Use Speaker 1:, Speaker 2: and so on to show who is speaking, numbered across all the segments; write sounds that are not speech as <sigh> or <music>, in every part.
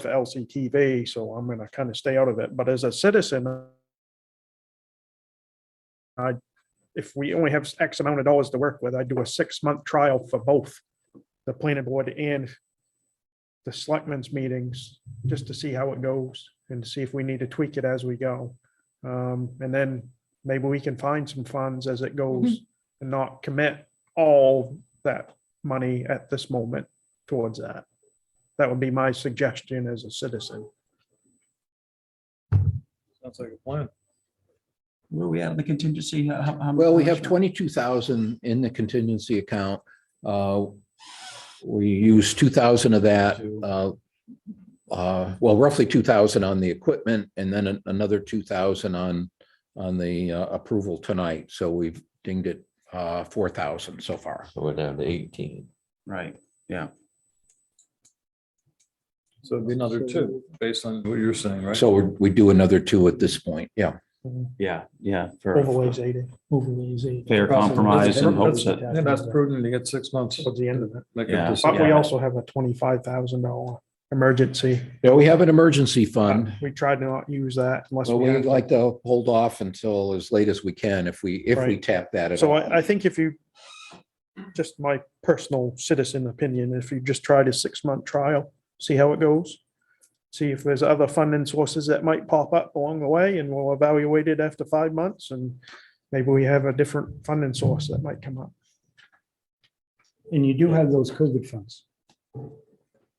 Speaker 1: for LCTV, so I'm gonna kind of stay out of it. But as a citizen, I, if we only have X amount of dollars to work with, I do a six-month trial for both the planning board and the selectmen's meetings, just to see how it goes and see if we need to tweak it as we go. Um, and then maybe we can find some funds as it goes and not commit all that money at this moment towards that. That would be my suggestion as a citizen.
Speaker 2: Sounds like a plan.
Speaker 3: Where we at in the contingency? How- how- how-
Speaker 4: Well, we
Speaker 3: how
Speaker 4: have
Speaker 3: much-
Speaker 4: twenty-two thousand in the contingency account. Uh, We use two thousand of that, uh, uh, well, roughly two thousand on the equipment and then an- another two thousand on, on the uh, approval tonight. So we've dinged it uh, four thousand so far.
Speaker 5: So we're down to eighteen.
Speaker 3: Right,
Speaker 2: So it'd be another two, based on what you're saying, right?
Speaker 4: So we do another two at this point, yeah.
Speaker 3: yeah, yeah, for
Speaker 1: Overlays eighty, overlays eighty.
Speaker 3: fair compromise and hopes
Speaker 2: That's
Speaker 3: that,
Speaker 2: that's prudent to get six months.
Speaker 1: Towards the end of it.
Speaker 2: Make a
Speaker 3: Yeah.
Speaker 2: decision.
Speaker 1: But we
Speaker 3: Yeah.
Speaker 1: also have a twenty-five thousand dollar emergency.
Speaker 4: Yeah, we have an emergency fund.
Speaker 1: We tried to not use that unless.
Speaker 4: So
Speaker 1: we
Speaker 4: we
Speaker 1: had-
Speaker 4: like to hold off until as late as we can if we, if we
Speaker 1: Right.
Speaker 4: tap that at
Speaker 1: So
Speaker 4: all.
Speaker 1: I, I think if you, just my personal citizen opinion, if you just try a six-month trial, see how it goes. See if there's other funding sources that might pop up along the way and we'll evaluate it after five months and maybe we have a different funding source that might come up.
Speaker 6: And you do have those COVID funds.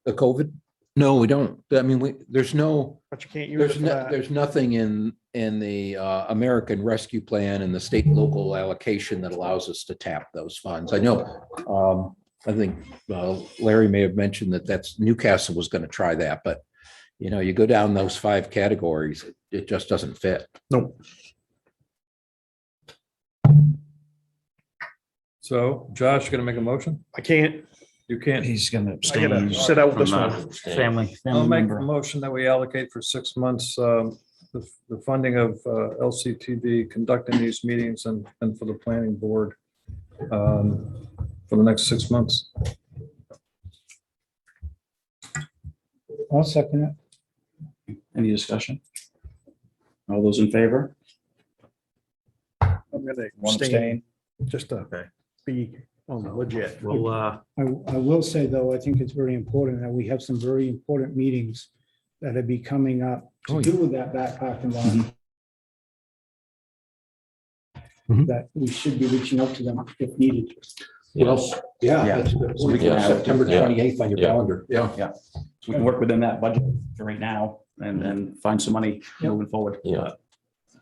Speaker 4: The COVID? No, we don't. I mean, we, there's no,
Speaker 1: But you can't use it
Speaker 4: there's
Speaker 1: for
Speaker 4: no,
Speaker 1: that.
Speaker 4: there's nothing in, in the uh, American Rescue Plan and the state and local allocation that allows us to tap those funds. I know. um, I think uh, Larry may have mentioned that that's Newcastle was going to try that, but you know, you go down those five categories, it- it just doesn't fit.
Speaker 2: So Josh, you gonna make a motion?
Speaker 1: I can't,
Speaker 2: You can't.
Speaker 3: he's gonna
Speaker 1: I gotta
Speaker 3: abstain
Speaker 1: sit out
Speaker 3: from uh,
Speaker 1: this one.
Speaker 3: that family,
Speaker 2: I'll
Speaker 3: family
Speaker 2: make a
Speaker 3: member.
Speaker 2: motion that we allocate for six months, um, the, the funding of, uh, LCTV conducting these meetings and, and for the planning board. Um, for the next six months.
Speaker 6: I'll second it.
Speaker 3: Any discussion? All those in favor?
Speaker 1: I'm gonna
Speaker 3: One
Speaker 1: abstain,
Speaker 3: abstain.
Speaker 1: just to be on the legit.
Speaker 3: Well, uh,
Speaker 6: I, I will say though, I think it's very important that we have some very important meetings that will be coming up
Speaker 4: Oh,
Speaker 6: to
Speaker 4: yeah.
Speaker 6: do with that back parking lot.
Speaker 4: Mhm.
Speaker 6: That we should be reaching out to them if needed.
Speaker 5: Yes,
Speaker 3: Yeah.
Speaker 4: that's good. So we can
Speaker 5: Yeah.
Speaker 4: have September
Speaker 5: Yeah.
Speaker 4: twenty-eighth on your
Speaker 5: Yeah.
Speaker 4: calendar. Yeah.
Speaker 3: so we can work within that budget for right now and then find some money moving forward. Uh,
Speaker 5: Yeah.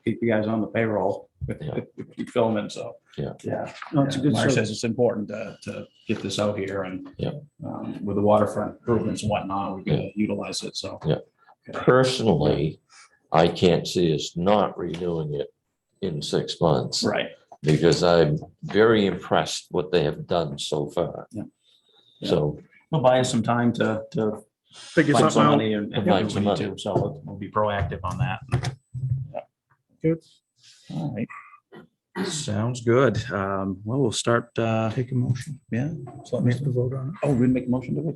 Speaker 3: Keep you guys on the payroll,
Speaker 5: Yeah.
Speaker 3: <laughs> keep filming, so.
Speaker 5: Yeah.
Speaker 3: Yeah.
Speaker 6: No, it's a good
Speaker 3: Mark says
Speaker 6: service.
Speaker 3: it's important to, to get this out here and.
Speaker 5: Yeah.
Speaker 3: um, With the waterfront improvements and whatnot, we can utilize it, so.
Speaker 5: personally, I can't see us not renewing it in six months.
Speaker 3: Right.
Speaker 5: Because I'm very impressed what they have done so far.
Speaker 3: Yeah.
Speaker 5: So,
Speaker 3: We'll buy us some time to, to
Speaker 1: Figure
Speaker 3: find
Speaker 1: something
Speaker 3: some
Speaker 1: out.
Speaker 3: money and and do
Speaker 5: Find
Speaker 3: what we
Speaker 5: some
Speaker 3: need to, so we'll be proactive on that.
Speaker 1: Good.
Speaker 3: All right. Sounds good. Um, well, we'll start, uh. Take a motion. Yeah. So we have to vote on it. Oh, we didn't make a motion, did we?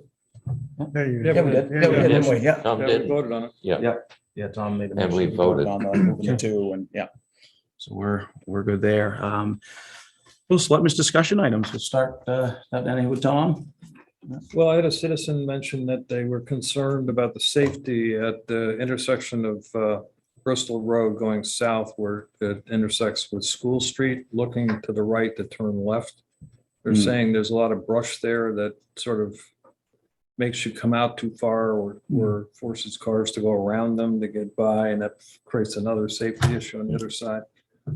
Speaker 1: There you
Speaker 2: Yeah, we
Speaker 1: go.
Speaker 2: did.
Speaker 1: Yeah,
Speaker 5: we did.
Speaker 1: yeah.
Speaker 5: didn't
Speaker 3: Yeah.
Speaker 5: Tom
Speaker 2: Yeah, we
Speaker 5: didn't,
Speaker 2: voted on it.
Speaker 3: Yeah, Tom made a
Speaker 5: And
Speaker 3: motion.
Speaker 5: we voted.
Speaker 3: On the moving the two and, yeah. So we're, we're good there. Um, well, selectmen's discussion items. We'll start, uh, that ending with Tom.
Speaker 2: Well, I had a citizen mention that they were concerned about the safety at the intersection of uh, Bristol Road going south where it intersects with School Street, looking to the right to turn left. They're
Speaker 3: Hmm.
Speaker 2: saying there's a lot of brush there that sort of makes you come out too far or, or forces cars to go around them to get by, and that creates another safety issue on the other side.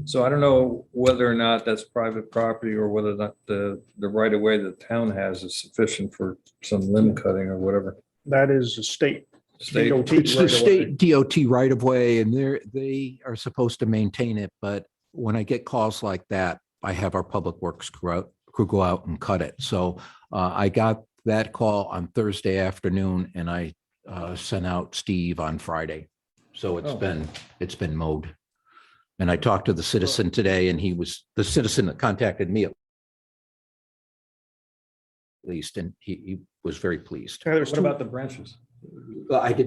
Speaker 2: So I don't know whether or not that's private property or whether or not the, the right of way the town has is sufficient for some limb cutting or whatever.
Speaker 1: That is a state
Speaker 2: State,
Speaker 1: DOT
Speaker 4: It's the
Speaker 1: right away.
Speaker 4: state DOT right of way and they're, they are supposed to maintain it, but when I get calls like that, I have our public works crew out, crew go out and cut it. So uh, I got that call on Thursday afternoon and I uh, sent out Steve on Friday. So it's
Speaker 2: Oh.
Speaker 4: been, it's been mowed. And I talked to the citizen today and he was, the citizen that contacted me at least, and he, he was very pleased.
Speaker 1: Yeah, there's
Speaker 2: what
Speaker 1: two-
Speaker 2: about the branches?
Speaker 4: I didn't